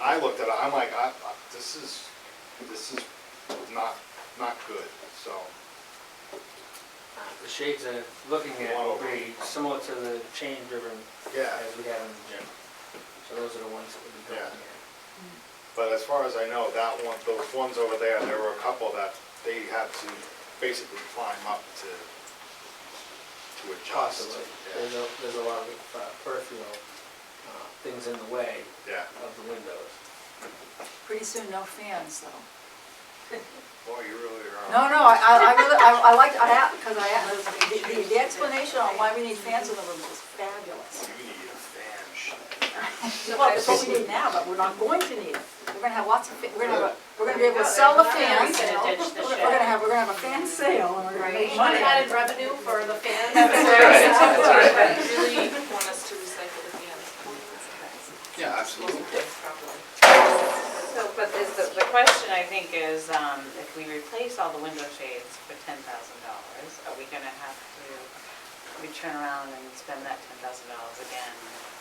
I looked at it, I'm like, I, I- this is, this is not, not good, so. The shades they're looking at will be similar to the chain driven Yeah. as we have in the gym. So those are the ones that would be going Yeah. here. But as far as I know, that one, those ones over there, there were a couple that they had to basically climb up to, to adjust. Possibly. There's Yeah, a, there's a lot of uh, peripheral uh, things in the way Yeah, of the windows. Pretty soon, no fans, though. boy, you really are. No, no, I, I I really, I I liked, I, had- cause I, had- the, the- the explanation on why we need fans in the room was fabulous. You need a fan, shit. Well, it's what we need now, but we're not going to need it. We're gonna have lots of, fa- we're gonna, have a- we're gonna be able to sell the fans. We're gonna ditch the We're shed. gonna have, we're gonna have a fan sale and we're gonna Right, make we money. added revenue for the fans. Really want us to recycle the cans. Yeah, absolutely. So, but is the, the question I think is, um, if we replace all the window shades for ten thousand dollars, are we gonna have to, we turn around and spend that ten thousand dollars again?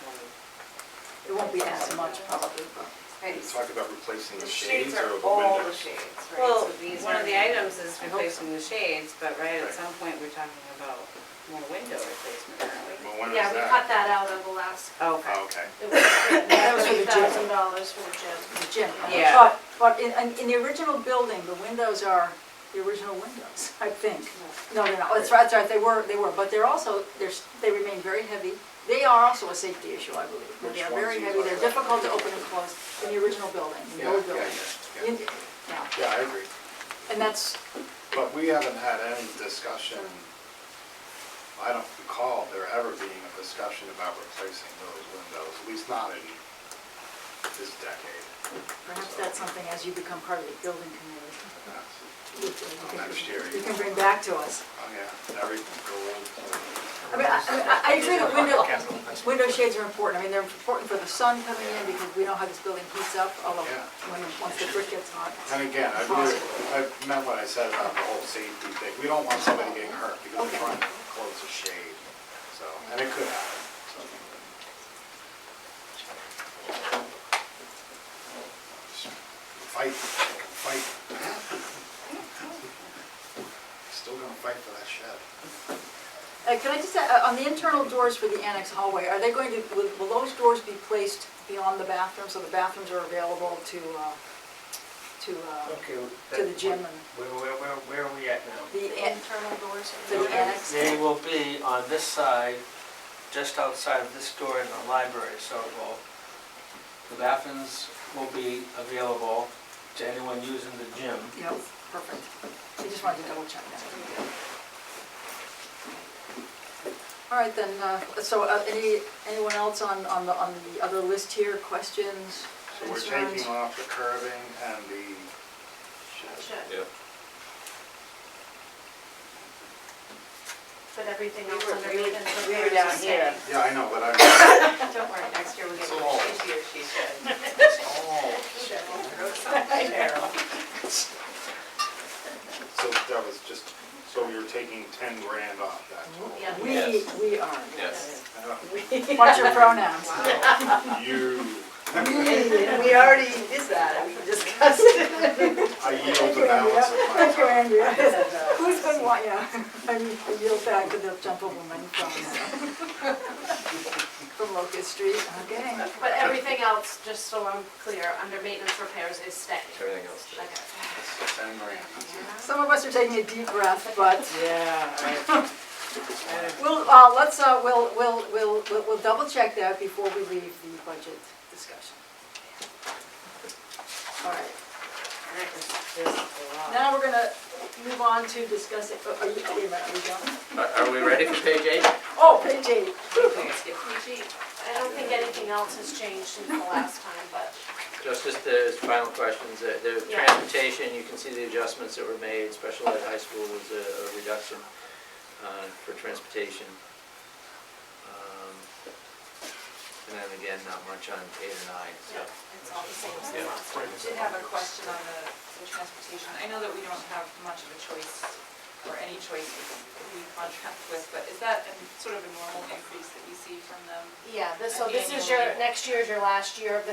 when we- It won't be as much probably, but. You talk about replacing the The shades shades or the are windows. all the shades, right? So Well, these one are- of the items is I hope replacing the shades, but right at Right. some point, we're talking about more window replacement, aren't we? Well, when is Yeah, we cut that? that out of the last, Okay. Oh, Okay. it was was for the three gym. thousand dollars for the gym. the gym. Yeah. But, but in, in- in the original building, the windows are the original windows, I think. No, they're not, that's right, that's right, they were, they were, but they're also, they're, s- they remain very heavy. They are also a safety issue, I believe. Which They are ones very you heavy, they're talking about? difficult to open and close in the original building, in the Yeah, old yeah, building. yeah, yeah. In- Yeah, Yeah, I agree. and that's, But we haven't had any discussion, I don't recall there ever being a discussion about replacing those windows, at least not in this decade. perhaps that's something as you become part of the building community. That's- you can- Next year. You can bring back to us. Oh, yeah, everything I gold. mean, I, I mean, I- I agree that window, window shades are important, I mean, they're important for the sun coming in, because we know how this building heats up, although Yeah. when, once the brick gets hot. And again, I really, I meant what I said about the whole safety thing, we don't want somebody getting hurt because they're Okay. trying to close a shade, so, and it could happen, so. Fight, fight. Still gonna fight for that shed. Uh, can I just, uh, on the internal doors for the annex hallway, are they going to, will, will those doors be placed beyond the bathroom, so the bathrooms are available to, uh, to, uh, Okay. To the gym and- Where, where, where where are we at now? the, The an- internal doors are. the annex? They will be on this side, just outside of this door in the library, so it will, the bathrooms will be available to anyone using the gym. Yep, perfect. I just wanted to double check that. All right, then, uh, so uh, any, anyone else on, on the, on the other list here, questions, So we're concerns? taking off the curving and the shed. Shed. Yeah. But everything else We were- underneath we- and the we were repairs down are here. staying. Yeah, I know, but I'm, Don't worry, next year we'll get So long. a she or she shed. it's all, Cheryl. so that was just, so you're taking ten grand off that total. Yeah. We, Yes. we are. Yes. Watch your pronouns. You, We already did that, we discussed it. I yield the balance of my Thank you, time. Andrea. Who's been, wa- yeah, I yield back to the gentlewoman from, uh, from Locust Street, okay. But everything else, just so I'm clear, under maintenance repairs is staying. Everything else stays. Okay. Ten grand. Some of us are taking a deep breath, but Yeah, I- I- we'll, uh, let's, uh, we'll, we'll, we'll, we'll- we'll double check that before we leave the budget discussion. All right. that was just a lot. Now we're gonna move on to discussing, oh, are you, wait a minute, are we done? Are are we ready for page eight? Oh, page eight. PG, I don't think anything else has changed since the last time, but Just as the final questions, uh, the Yeah. transportation, you can see the adjustments that were made, special ed high school was a a reduction uh, for transportation. Um, And then again, not much on eight or nine, so. yeah, it's all the same as the Yeah. last time. I did have a question on the the transportation. I know that we don't have much of a choice, or any choice who we contract with, but is that a sort of a normal increase that we see from them? Yeah, this, so this is your, next year is your last year of the